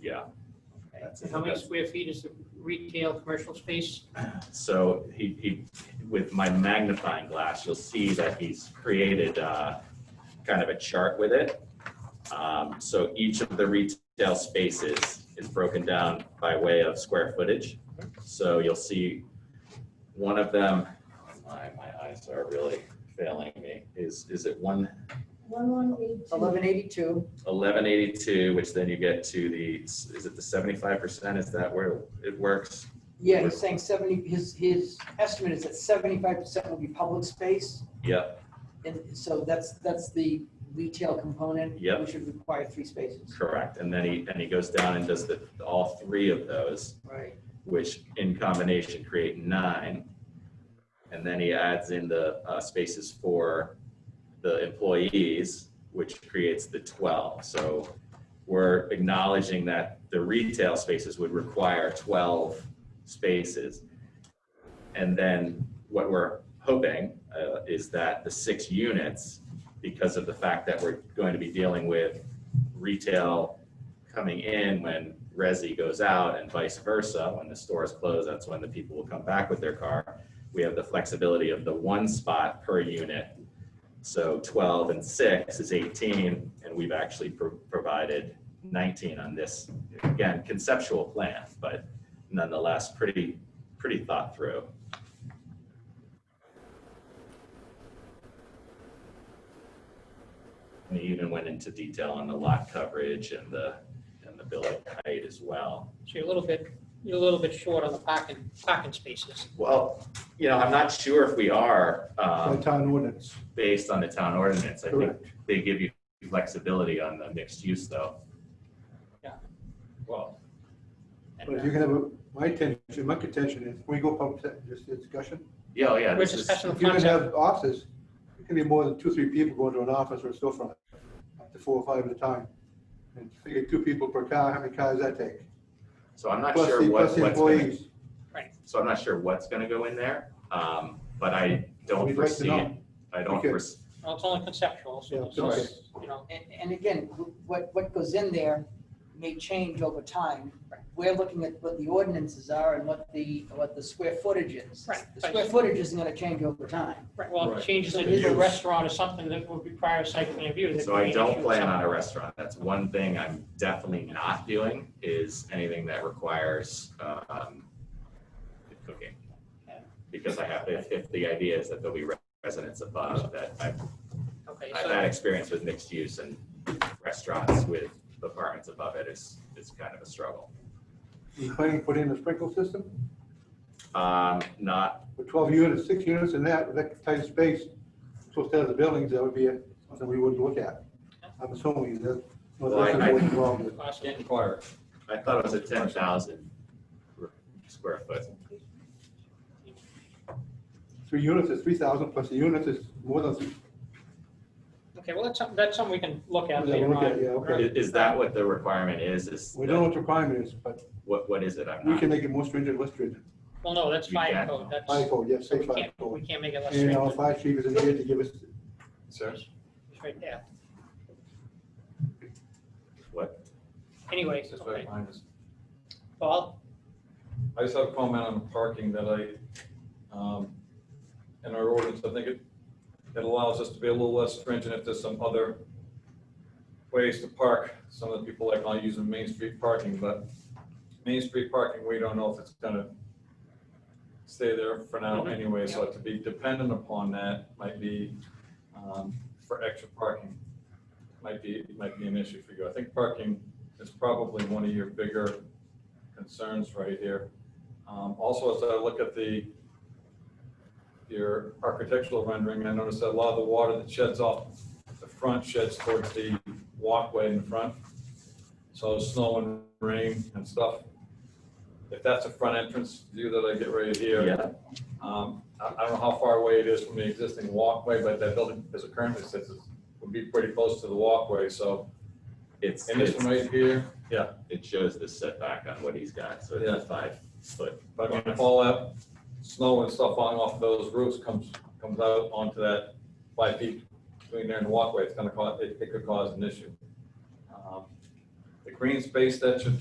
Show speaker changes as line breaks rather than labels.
yeah.
That's
How many
Yes.
square feet is the retail commercial space?
So he, he, with my magnifying glass, you'll see that he's created uh, kind of a chart with it. Um, So each of the retail spaces is broken down by way of square footage. So you'll see one of them, my, my eyes are really failing me, is, is it one
One one eight two.
Eleven eighty-two,
eleven eighty-two, which then you get to the, is it the seventy-five percent? Is that where it works?
yeah, he's saying seventy, his, his estimate is that seventy-five percent will be public space.
Yep,
And so that's, that's the retail component.
Yep.
We should require three spaces.
correct. And then he, and he goes down and does the, all three of those.
Right.
which in combination create nine. And then he adds in the uh, spaces for the employees, which creates the 12. So we're acknowledging that the retail spaces would require 12 spaces. And then what we're hoping uh, is that the six units, because of the fact that we're going to be dealing with retail coming in when Resi goes out and vice versa. When the stores close, that's when the people will come back with their car. We have the flexibility of the one spot per unit. So 12 and 6 is 18, and we've actually pro- provided 19 on this, again, conceptual plan, but nonetheless, pretty, pretty thought through. We even went into detail on the lot coverage and the, and the building height as well.
So you're a little bit, you're a little bit short on the parking, parking spaces.
Well, you know, I'm not sure if we are,
by
um,
town ordinance,
based on the town ordinance. I think
correct?
they give you flexibility on the mixed use though.
Yeah.
Well,
And,
But if
uh,
you can have, a- my intention, my contention is, we go public, se- just a discussion.
yeah, oh, yeah.
We're
this is-
discussing
If
the
you can
concept.
have offices, it can be more than two, three people going to an office or a storefront, up to four or five at a time. And figure two people per car, how many cars that take?
So I'm not
Plus
sure
the,
what,
plus the
what's gonna,
employees.
so I'm not sure what's gonna go in there. Um, but I don't
We'd like to
foresee,
know.
it. I don't
Okay.
foresee,
Well, it's only conceptual,
Yeah,
so, so, it's, you know,
And, and again, what, what goes in there may change over time. We're looking at what the ordinances are and what the, what the square footage is.
Right.
The square footage isn't gonna change over time.
right, well, if it
Right.
changes
So
it into a
use.
restaurant or something that would require a site plan review. there
So
could be
I
an
don't
issue
plan
with
on a restaurant. That's one thing I'm definitely not doing is anything that requires um, cooking. Because I have, if, if the idea is that there'll be residents above, that I've,
some- Okay,
I've had experience with mixed use and restaurants with apartments above it is, is kind of a struggle.
You planning to put in a sprinkle system
Um, Not,
with twelve units, six units in that, with that tight space. Supposed to have the buildings, that would be a- something we wouldn't look at. I'm assuming that, well,
Well, I-
that's
I-
what's involved with.
so possible.
inquire.
I thought it was a ten thousand square foot.
Three units is three thousand, plus the units is more than, three-
Okay, well, that's something, that's something we can look at
Yeah,
later
we'll look
on.
at- yeah, okay.
Is is that what the requirement is? Is,
we don't know what the requirement is, but
what, what is it? I'm
we
not,
can make it more stringent, less stringent.
Well, no, that's
We
fire
can.
code, that's,
Fire code, yes,
so
say
we
fire
can't, we
code.
can't make it less
And uh, our
strict,
fire chief is in here to give us
Sir?
it's right there.
what?
Anyway,
This is
okay,
what mine is.
Paul,
I just have a comment on parking that I, um, in our ordinance, I think it, it allows us to be a little less stringent if there's some other ways to park. Some of the people like, I'll use a Main Street parking, but Main Street parking, we don't know if it's gonna stay there for now
Mhm.
anyway, so to be dependent upon that might be, um, for extra parking, might be, might be an issue for you. I think parking is probably one of your bigger concerns right here. Um, Also, as I look at the, your architectural rendering, I noticed that a lot of the water that sheds off the front sheds towards the walkway in front. So snow and rain and stuff. If that's a front entrance view that I get right here.
Yeah,
Um, I, I don't know how far away it is from the existing walkway, but that building, as it currently sits, is- would be pretty close to the walkway, so.
it's.
And this
it's-
one right here,
it shows the setback on what he's got, so it's a
Yeah.
five foot.
but when all that snow and stuff falling off those roofs comes, comes out onto that five feet between there and the walkway, it's gonna cause, it, it could cause an issue. Um, The green space that should